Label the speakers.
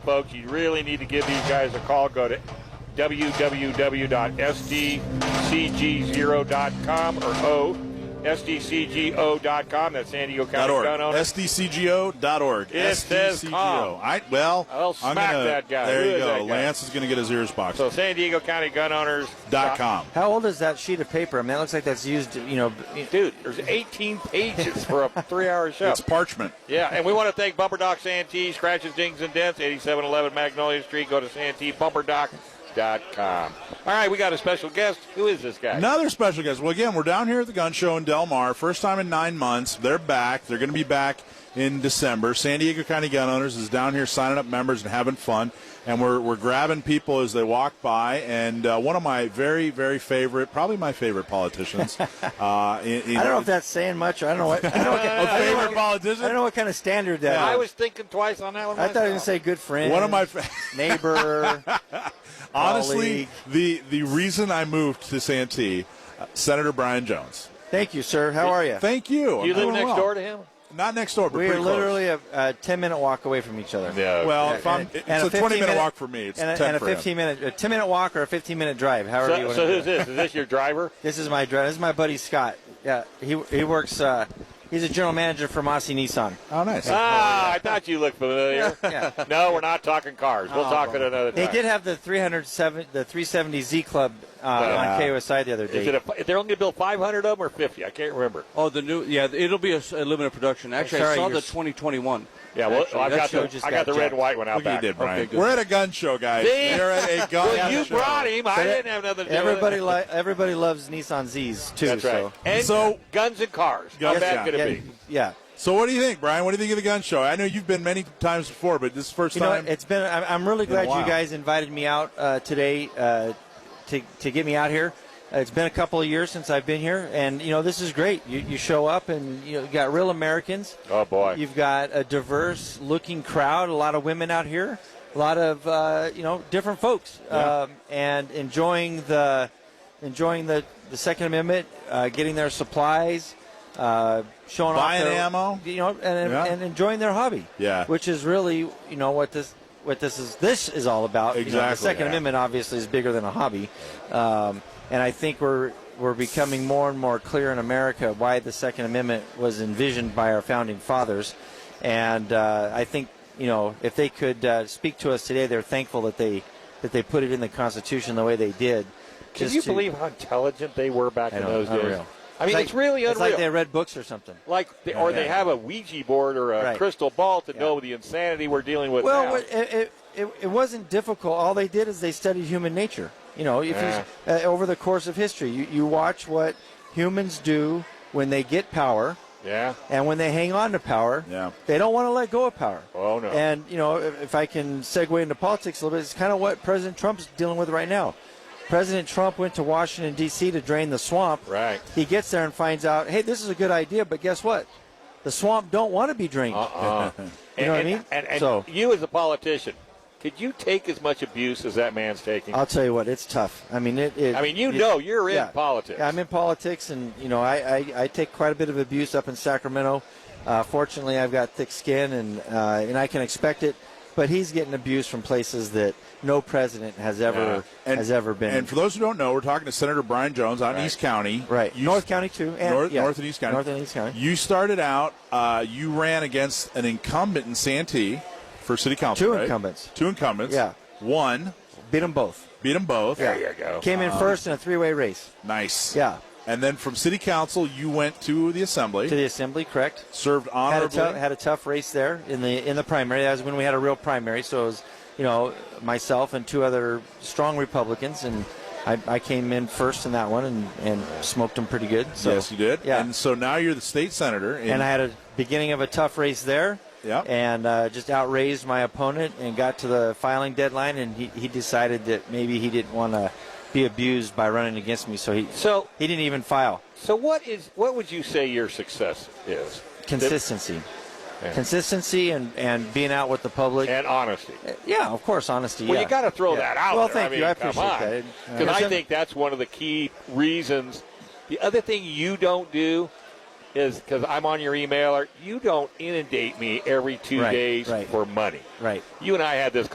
Speaker 1: Folks, you really need to give these guys a call. Go to www.sdcg0.com or o sdcgo.com. That's San Diego County
Speaker 2: .org.
Speaker 1: Gun Owners.
Speaker 2: SDCGO.org.
Speaker 1: It says
Speaker 2: SDCGO.
Speaker 1: calm.
Speaker 2: I, well,
Speaker 1: I'll
Speaker 2: I'm
Speaker 1: smack
Speaker 2: gonna,
Speaker 1: that guy.
Speaker 2: There
Speaker 1: Who
Speaker 2: you
Speaker 1: is
Speaker 2: go.
Speaker 1: that guy?
Speaker 2: Lance is going to get his ears boxed.
Speaker 1: So San Diego County Gun Owners
Speaker 2: dot com.
Speaker 3: How old is that sheet of paper? I mean, that looks like that's used, you know. b-
Speaker 1: Dude, there's 18 pages for a three-hour show.
Speaker 2: It's parchment.
Speaker 1: Yeah, and we want to thank Bumper Doc Santee, scratches, dings, and dents, 8711 Magnolia Street. Go to SanteeBumperDoc.com. All right, we got a special guest. Who is this guy?
Speaker 2: Another special guest. Well, again, we're down here at the gun show in Del Mar. First time in nine months. They're back. They're going to be back in December. San Diego County Gun Owners is down here signing up members and having fun. And we're, we're grabbing people as they walk by. And uh, one of my very, very favorite, probably my favorite politicians. uh, in, in-
Speaker 3: I don't know if that's saying much. I don't know what. I don't know what,
Speaker 2: a
Speaker 3: I don't know
Speaker 2: favorite
Speaker 3: what-
Speaker 2: politician.
Speaker 3: I don't know what kind of standard that
Speaker 1: I
Speaker 3: is.
Speaker 1: was thinking twice on that one.
Speaker 3: I thought I was gonna
Speaker 1: myself.
Speaker 3: say good friend.
Speaker 2: One of my fa-
Speaker 3: neighbor.
Speaker 2: Honestly,
Speaker 3: colleague.
Speaker 2: the the reason I moved to Santee, uh, Senator Brian Jones.
Speaker 3: Thank you, sir. How are you?
Speaker 2: Thank you.
Speaker 1: You live
Speaker 2: I'm doing
Speaker 1: next
Speaker 2: well.
Speaker 1: door to him?
Speaker 2: Not next door, but
Speaker 3: we are
Speaker 2: pretty
Speaker 3: literally a, a ten-minute walk away from each other.
Speaker 1: Yeah.
Speaker 2: close. Well,
Speaker 3: Yeah,
Speaker 2: if I'm,
Speaker 3: and-
Speaker 2: it's
Speaker 3: and
Speaker 2: a 20 minute
Speaker 3: 15-minute
Speaker 2: walk for me. It's
Speaker 3: and a,
Speaker 2: 10
Speaker 3: and a
Speaker 2: for him.
Speaker 3: fifteen-minute, a ten-minute walk or a fifteen-minute drive, however you
Speaker 1: So,
Speaker 3: want
Speaker 1: so
Speaker 3: to do
Speaker 1: who's
Speaker 3: it.
Speaker 1: this? Is this your driver?
Speaker 3: This is my drive. This is my buddy Scott. Yeah, he he works. Uh, he's a general manager for Massey Nissan.
Speaker 2: Oh, nice.
Speaker 1: Ah, I thought you looked familiar.
Speaker 3: Yeah.
Speaker 1: No, we're not talking cars. We'll talk at another time.
Speaker 3: Oh, They did have the 307, the 370Z Club uh,
Speaker 2: Yeah.
Speaker 3: on KOSI the other
Speaker 1: Is
Speaker 3: day.
Speaker 1: it a, they're only going to build 500 of them or 50? I can't remember.
Speaker 4: Oh, the new, yeah, it'll be a, s- a limited production. Actually,
Speaker 3: sorry,
Speaker 4: I saw
Speaker 3: you're
Speaker 4: the
Speaker 3: s-
Speaker 4: 2021.
Speaker 1: Yeah, well,
Speaker 4: Actually,
Speaker 1: I've
Speaker 4: that
Speaker 1: got
Speaker 4: show
Speaker 1: the,
Speaker 3: just
Speaker 1: I got the
Speaker 3: got
Speaker 1: red and
Speaker 3: jacked.
Speaker 1: white one out
Speaker 2: Look what you
Speaker 1: back.
Speaker 2: did, Brian.
Speaker 4: good.
Speaker 2: We're at a gun show, guys.
Speaker 1: See?
Speaker 2: We're at a gun
Speaker 1: Well, you
Speaker 2: show.
Speaker 1: brought him. I
Speaker 3: So that-
Speaker 1: didn't have nothing to do
Speaker 3: Everybody
Speaker 1: with it.
Speaker 3: li- everybody loves Nissan Z's too.
Speaker 1: That's right.
Speaker 3: So.
Speaker 1: And
Speaker 2: So-
Speaker 1: guns and cars. How
Speaker 2: Guns,
Speaker 1: bad
Speaker 2: yeah.
Speaker 1: could it
Speaker 3: yeah,
Speaker 1: be?
Speaker 3: yeah.
Speaker 2: So, what do you think, Brian? What do you think of the gun show? I know you've been many times before, but this is the first
Speaker 3: You know,
Speaker 2: time.
Speaker 3: what? it's been. I'm, I'm really
Speaker 2: a
Speaker 3: glad
Speaker 2: while.
Speaker 3: you guys invited me out uh, today uh, to to get me out here. Uh, It's been a couple of years since I've been here, and you know this is great. You, you show up, and you, know, you got real Americans.
Speaker 1: Oh, boy.
Speaker 3: You've got a diverse looking crowd. A lot of women out here. A lot of uh, you know different folks, um, and enjoying the enjoying the, the Second Amendment, uh, getting their supplies. Uh, showing
Speaker 2: Buying
Speaker 3: off their,
Speaker 2: ammo.
Speaker 3: you know, and,
Speaker 2: Yeah.
Speaker 3: and enjoying their hobby,
Speaker 2: Yeah.
Speaker 3: which is really you know what this what this is this is all about. You know,
Speaker 2: Exactly,
Speaker 3: the Second
Speaker 2: yeah.
Speaker 3: Amendment obviously is bigger than a hobby, um, and I think we're we're becoming more and more clear in America why the Second Amendment was envisioned by our founding fathers, and uh, I think you know if they could uh, speak to us today, they're thankful that they that they put it in the Constitution the way they did.
Speaker 1: Can
Speaker 3: just
Speaker 1: you
Speaker 3: to-
Speaker 1: believe how intelligent they were back
Speaker 3: I
Speaker 1: in
Speaker 3: know,
Speaker 1: those days?
Speaker 3: unreal.
Speaker 1: I mean,
Speaker 3: like-
Speaker 1: it's, really unreal.
Speaker 3: It's like they read books or something.
Speaker 1: Like they, or they have a Ouija board or a
Speaker 3: Right.
Speaker 1: crystal ball to
Speaker 3: Yeah.
Speaker 1: know the insanity we're dealing with now.
Speaker 3: Well, it, it, it, it wasn't difficult. All they did is they studied human nature. You know, if you, uh, over the course of history, you, you watch what humans do when they get power
Speaker 1: yeah.
Speaker 3: and when they hang on to power.
Speaker 2: Yeah.
Speaker 3: They don't want to let go of power.
Speaker 1: Oh, no.
Speaker 3: And, you know, if, if I can segue into politics a little bit, it's kind of what President Trump's dealing with right now. President Trump went to Washington, D.C. to drain the swamp.
Speaker 1: Right.
Speaker 3: He gets there and finds out, hey, this is a good idea, but guess what? The swamp don't want to be drained.
Speaker 1: Uh-uh.
Speaker 3: You know what I
Speaker 1: and,
Speaker 3: mean?
Speaker 1: And, and
Speaker 3: So-
Speaker 1: you as a politician, could you take as much abuse as that man's taking?
Speaker 3: I'll tell you what, it's tough. I mean, it. it
Speaker 1: I mean, you know you're in
Speaker 3: yeah.
Speaker 1: politics.
Speaker 3: Yeah, I'm in politics, and you know, I, I, I take quite a bit of abuse up in Sacramento. Uh, fortunately, I've got thick skin, and uh, and I can expect it. But he's getting abuse from places that no president has ever
Speaker 2: And-
Speaker 3: has ever been.
Speaker 2: And for those who don't know, we're talking to Senator Brian Jones out in East County.
Speaker 3: right,
Speaker 2: You-
Speaker 3: North County too, and
Speaker 2: North,
Speaker 3: yeah.
Speaker 2: North and East County.
Speaker 3: North and East County.
Speaker 2: You started out. Uh, you ran against an incumbent in Santee for city council.
Speaker 3: Two
Speaker 2: right?
Speaker 3: incumbents.
Speaker 2: Two incumbents.
Speaker 3: Yeah.
Speaker 2: One
Speaker 3: Beat them both.
Speaker 2: beat them both.
Speaker 1: there you go.
Speaker 3: Came in first in a three-way race
Speaker 2: Nice.
Speaker 3: Yeah.
Speaker 2: And then from city council, you went to the assembly.
Speaker 3: to the assembly. Correct.
Speaker 2: served
Speaker 3: had a
Speaker 2: honorably.
Speaker 3: tough had a tough race there in the in the primary. That was when we had a real primary. So it was you know myself and two other strong Republicans, and I, I came in first in that one and and smoked them pretty good. So,
Speaker 2: yes, you did.
Speaker 3: Yeah.
Speaker 2: And so now you're the state senator. in-
Speaker 3: and I had a beginning of a tough race there.
Speaker 2: Yeah.
Speaker 3: And uh, just outraised my opponent and got to the filing deadline, and he, he decided that maybe he didn't want to be abused by running against me, so he
Speaker 1: So-
Speaker 3: he didn't even file.
Speaker 1: So what is what would you say your success is?
Speaker 3: Consistency.
Speaker 1: Yeah.
Speaker 3: Consistency and, and being out with the public.
Speaker 1: And honesty.
Speaker 3: Yeah, of course, honesty.
Speaker 1: Well,
Speaker 3: yeah.
Speaker 1: you got to throw
Speaker 3: Yeah.
Speaker 1: that out.
Speaker 3: Well,
Speaker 1: there.
Speaker 3: thank
Speaker 1: I mean,
Speaker 3: you. I
Speaker 1: come
Speaker 3: appreciate
Speaker 1: on. Uh,
Speaker 3: that.
Speaker 1: Because I think that's one of the key reasons. The other thing you don't do is because I'm on your emailer. You don't inundate me every two
Speaker 3: Right,
Speaker 1: days
Speaker 3: right.
Speaker 1: for money.
Speaker 3: right.
Speaker 1: You and I had this